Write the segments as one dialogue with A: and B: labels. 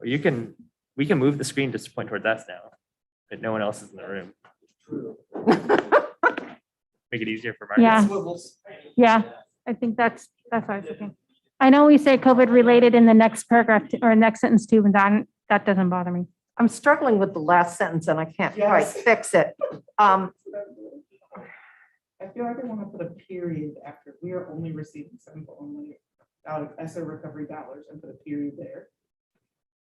A: Or you can, we can move the screen just to point towards us now, but no one else is in the room. Make it easier for Marcus.
B: Yeah. Yeah, I think that's, that's what I was thinking. I know we say COVID related in the next paragraph t- or next sentence too, but that, that doesn't bother me.
C: I'm struggling with the last sentence and I can't quite
D: Yes.
C: fix it. Um,
D: I feel like I want to put a period after, we are only receiving simple only out of ESSER recovery dollars and put a period there.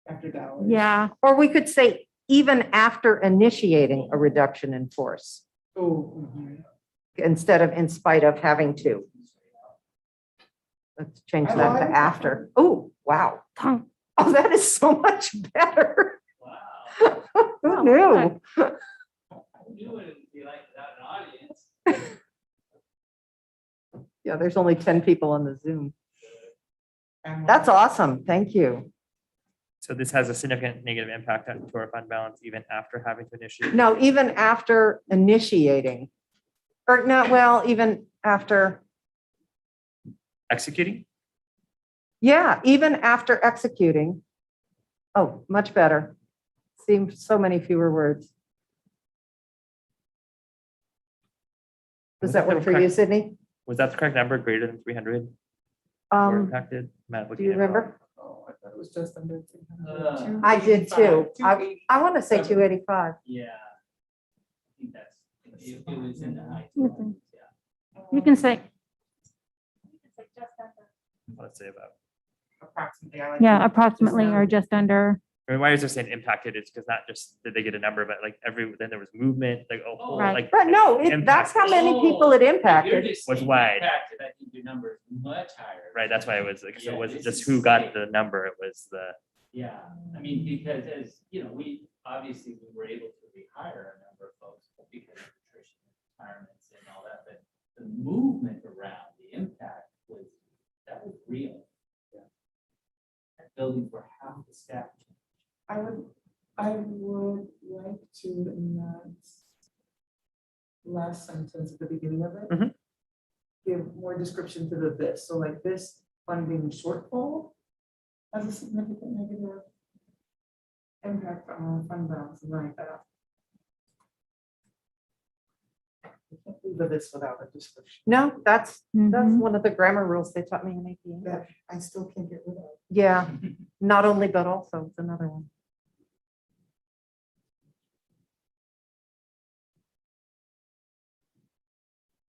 D: After dollars.
B: Yeah,
C: or we could say even after initiating a reduction in force
D: Oh. mhm.
C: instead of in spite of having to. Let's change
D: I
C: that
D: like
C: to
D: that.
C: after. Oh, wow.
B: tongue.
C: Oh, that is so much better.
B: Wow,
C: Who knew? Yeah, there's only 10 people on the Zoom.
D: I'm
C: That's
D: like,
C: awesome. Thank you.
A: So this has a significant negative impact on to our fund balance even after having to initiate.
C: No, even after initiating. Or not, well, even after,
A: Executing?
C: yeah, even after executing. Oh, much better. Seems so many fewer words. Does that work for you, Sydney?
A: Was that the correct number, greater than three hundred were
C: Um,
A: impacted? Matt,
C: do
A: looking
C: you
A: at it wrong.
C: remember?
D: Oh, I thought it was just under. 300.
E: Uh,
D: 285,
C: I did too. I-
D: 280.
C: I want to say 285.
E: Yeah. I think that's, it it was in the high
B: You
E: 200s,
B: can-
E: yeah.
B: You
D: um,
B: can say,
A: Let's say about.
D: Approximately. I like
B: yeah,
D: that.
B: approximately or just under.
A: I mean, why is there saying impacted? It's because not just did they get a number, but like every, then there was movement, like, oh, whole,
B: Right.
A: like.
C: But no, it- that's how many people it
E: If you're
C: impacted.
E: just
A: Was
E: saying
A: wide.
E: Impacted, I think your number is much higher.
A: Right, that's why it was like, so
E: Yeah,
A: it wasn't
E: this
A: just
E: is
A: who got
E: insane.
A: the number, it was the,
E: Yeah, I mean, because as, you know, we, obviously, we were able to rehire a number of folks because of attrition, retirements and all that, but the movement around, the impact was, that was real. That building for half the staff.
D: I would, I would like to in that last sentence at the beginning of it.
A: Mhm.
D: Give more description to the this, so like this funding shortfall has a significant negative impact on our fund balance and like that. We can't leave The this without a description.
C: No, that's, that's
B: Mhm.
C: one of the grammar rules they taught me in E. AP English.
D: That I still can't get rid of.
C: Yeah, not only but also it's another one.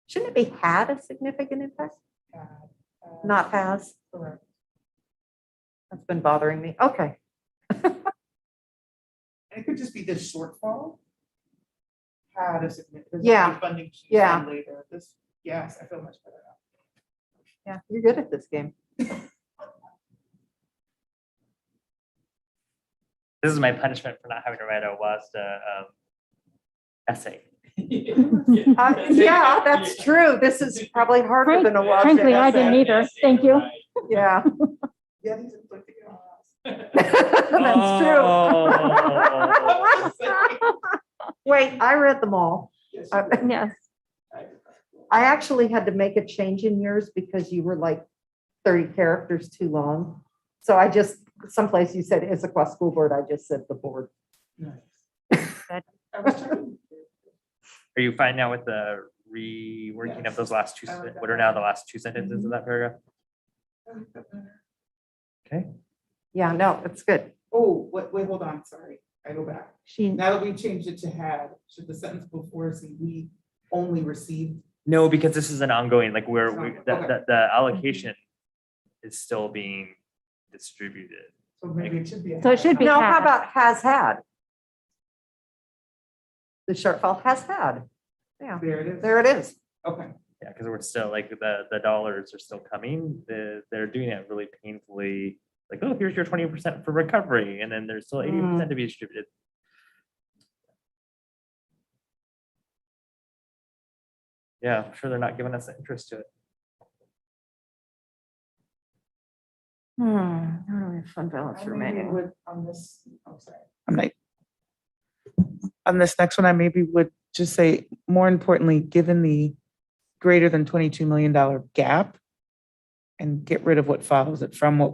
C: Shouldn't it be had a significant impact,
D: uh, uh,
C: not has?
D: Correct.
C: That's been bothering me. Okay,
D: And It could just be this shortfall. Had a significant. there's a
C: Yeah,
D: Funding. sheet
C: yeah.
D: Later, this, yes, I feel much better now.
C: yeah, you're good at this game.
A: this is my punishment for not having to write a WASDA um, essay.
C: Uh, Yeah, that's true. This is probably harder than a
E: Frank-
C: lot.
B: frankly, I didn't either. Thank you.
C: Yeah,
D: Yeah, these are put together.
A: Uh,
C: that's true.
A: Oh.
C: Wait, I read them all.
D: Yes,
C: I-
B: Yes.
C: I actually had to make a change in yours because you were like thirty characters too long. So I just, someplace you said Issaquah School Board, I just said the board.
D: nice.
B: Good.
D: I was trying-
A: Are you fine now with the reworking of
D: Yes.
A: those last two,
D: I like
A: sen-
D: that
A: what are now the last two sentences of that paragraph?
D: I like that better.
C: Yeah, no, it's good.
D: Oh, wait, wait, hold on, sorry, I go back.
B: She,
D: Now that we changed it to had, should the sentence before say we only received?
A: No, because this is an ongoing, like where
D: It's
A: we,
D: not-
A: the,
D: okay.
A: the, the allocation is still being distributed.
D: So maybe it should be. a
B: So it
D: had.
B: should be-
C: No, how
B: had.
C: about has had? The shortfall has had. Yeah,
D: There it is.
C: there it is.
D: Okay,
A: Yeah, because we're still like the, the dollars are still coming. The, they're doing it really painfully. Like, oh, here's your twenty percent for recovery and then there's still eighty percent to be distributed. Yeah, I'm sure they're not giving us the interest to it.
C: Hmm, I don't have fund balance
D: I maybe
C: remaining.
D: would on this, I'm sorry.
F: I'm like, on this next one, I maybe would just say, more importantly, given the greater than $22 million gap, and get rid of what follows it from what we.